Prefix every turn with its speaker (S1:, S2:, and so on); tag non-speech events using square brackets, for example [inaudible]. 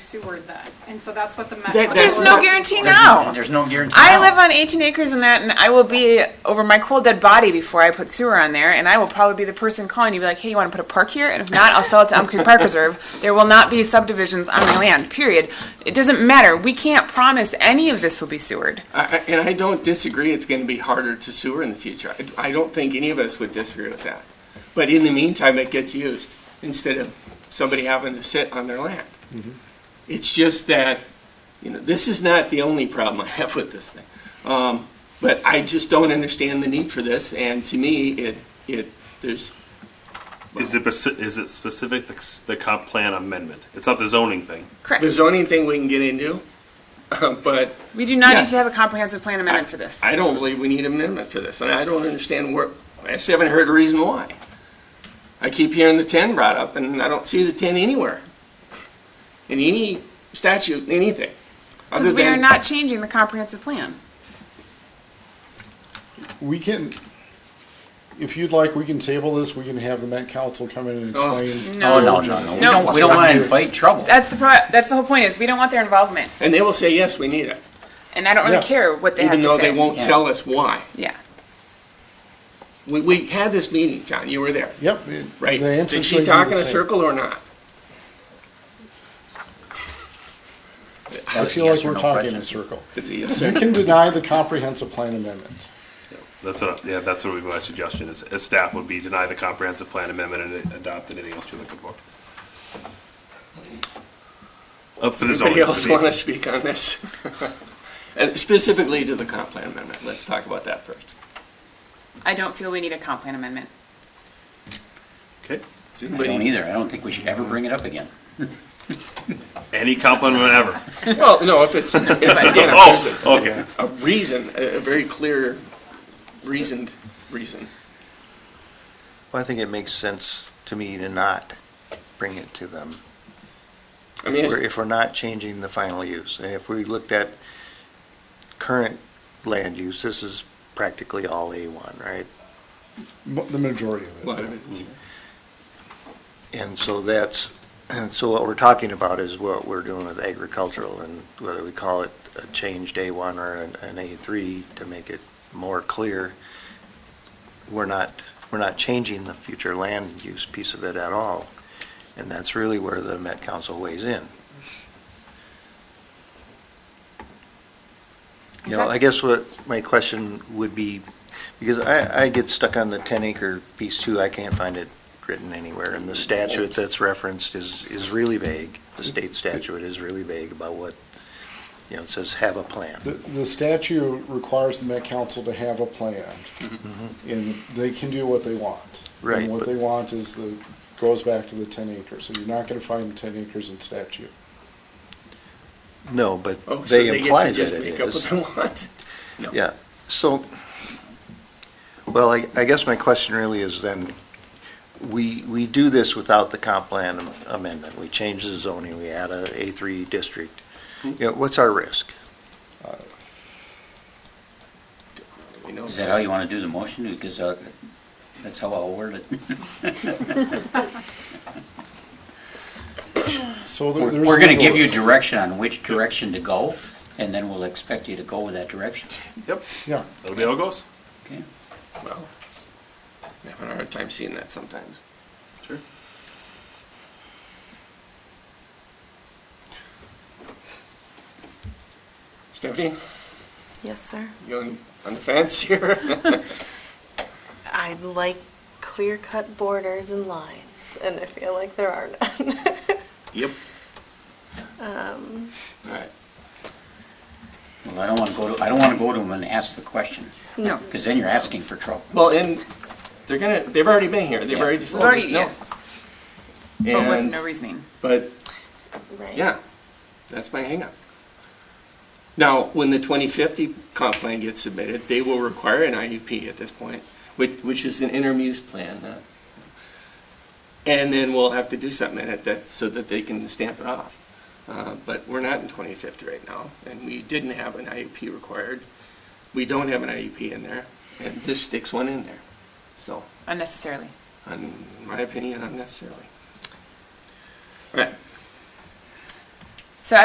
S1: sewered then, and so that's what the. ma-
S2: That-
S1: what
S2: that's
S1: the-
S3: There's no guarantee now.
S4: There's no guarantee.
S3: I
S4: now.
S3: live on 18 acres and that, and I will be over my cold dead body before I put sewer on there, and I will probably be the person calling you, be like, hey, you want to put a park here? And if not, I'll sell it to Elm Creek
S4: [laughs]
S3: Park Reserve. There will not be subdivisions on my land, period. It doesn't matter. We can't promise any of this will be sewered.
S2: I- I- And I don't disagree, it's going to be harder to sewer in the future. I- I don't think any of us would disagree with that. But in the meantime, it gets used instead of somebody having to sit on their land. It's just that, you know, this is not the only problem I have with this thing. Um, But I just don't understand the need for this, and to me, it, it, there's,
S5: Is it, speci- is it specific, the c- the comp plan amendment? It's not the zoning thing.
S3: Correct.
S2: the zoning thing we can get into, [laughs] but
S3: We do not
S2: Yeah.
S3: need to have a comprehensive plan amendment for this.
S2: I don't believe we need an amendment for this, and I don't understand where, I just haven't heard a reason why. I keep hearing the ten brought up, and I don't see the ten anywhere. In any statute, anything.
S3: Because
S2: other
S3: we are
S2: than-
S3: not changing the comprehensive plan.
S6: We can, if you'd like, we can table this, we can have the Met Council come in and
S2: Oh.
S6: explain.
S4: Oh, no, no, no. We
S3: No.
S4: don't, we don't want to invite trouble.
S3: That's the, pro- that's the whole point is we don't want their involvement,
S2: And they will say, yes, we need it,
S3: and I don't really
S6: Yes.
S3: care what they have
S2: even
S3: to say.
S2: though they won't
S4: Yeah.
S2: tell us why.
S3: Yeah.
S2: We, we had this meeting, John, you were there,
S6: Yep. the-
S2: right?
S6: The
S2: Did
S6: answer's
S2: she
S6: going
S2: talk in
S6: to be
S2: a
S6: the same.
S2: circle or not?
S6: I feel
S4: Yes
S6: like
S4: or
S6: we're
S4: no
S6: talking
S4: question.
S6: in a circle.
S2: It's a
S6: [laughs]
S2: yes
S6: You
S2: or-
S6: can deny the comprehensive plan amendment.
S5: That's what, I- yeah, that's what would be my suggestion, is, as staff would be deny the comprehensive plan amendment and adopt anything else you're looking for. Up to the zoning.
S2: Anybody else
S5: to be-
S2: want to speak on this? [laughs] And specifically to the comp plan amendment, let's talk about that first.
S3: I don't feel we need a comp plan amendment.
S5: Okay.
S2: Does
S4: I
S2: anybody-
S4: don't either. I don't think we should ever bring it up again.
S5: Any comp plan amendment ever.
S2: Well, no, if it's, if,
S5: [laughs]
S2: again, if
S5: Oh,
S2: there's
S5: okay.
S2: a, a reason, a, a very clear, reasoned reason.
S7: Well, I think it makes sense to me to not bring it to them.
S2: I mean,
S7: We're-
S2: it's-
S7: If we're not changing the final use, And if we looked at current land use, this is practically all A1, right?
S6: Mo- The majority of it.
S2: well, I
S6: yeah.
S2: mean,
S7: And so that's, and so what we're talking about is what we're doing with agricultural and whether we call it a changed A1 or an an A3 to make it more clear. We're not, we're not changing the future land use piece of it at all. And that's really where the Met Council weighs in. You know, I guess what my question would be, because I, I get stuck on the ten acre piece too, I can't find it written anywhere. And the statute that's referenced is, is really vague,
S2: Mm-hmm.
S7: the state statute is really vague about what, you know, it says have a
S6: The,
S7: plan.
S6: the statute requires the Met Council to have a plan,
S2: Mm-hmm.
S6: and they can do what they want.
S7: Right,
S6: And what
S7: but-
S6: they want is the, goes back to the ten acres, so you're not gonna find the ten acres in statute.
S7: No, but
S2: oh, so
S7: Mm-hmm. they
S2: they get
S7: imply
S2: to
S7: that
S2: just
S7: it
S2: make up what
S7: is.
S2: they want.
S7: Yeah, so, well, I, I guess my question really is then, we, we do this without the comp plan am- amendment. We change the zoning, we add a A three district. You know, what's our risk?
S2: You know,
S4: Is that how you want to do the motion? Because uh, that's how I'll word it.
S6: So there- there's.
S4: We're going to
S6: legal
S4: give you
S6: risk.
S4: direction on which direction to go, and then we'll expect you to go with that direction.
S5: Yep,
S6: Yeah,
S5: that'll be how it goes.
S4: Okay?
S2: well, I'm having a hard time seeing that sometimes.
S5: Sure.
S2: Stephanie,
S8: Yes, sir.
S2: you on, on the fence here? [laughs]
S8: I like clear cut borders and lines, and I feel like there are none. [laughs]
S2: Yep. All right.
S4: Well, I don't want to go to, I don't want to go to them and ask the question,
S3: No.
S4: because then you're asking for trouble.
S2: Well, and they're gonna, they've already been here, they've
S4: Yeah.
S2: already just
S3: We've
S2: let us
S3: already,
S2: know.
S3: yes, but with no reasoning.
S2: But
S8: right.
S2: Yeah, that's my hangup. Now, when the 2050 comp plan gets submitted, they will require an IUP at this point, which, which is an intermuse plan. uh, And then we'll have to do something in it that, so that they can stamp it off. Uh, But we're not in 2050 right now, and we didn't have an IUP required. We don't have an IUP in there, and this sticks one in there. So,
S3: Unnecessarily.
S2: in my opinion, unnecessarily. All right,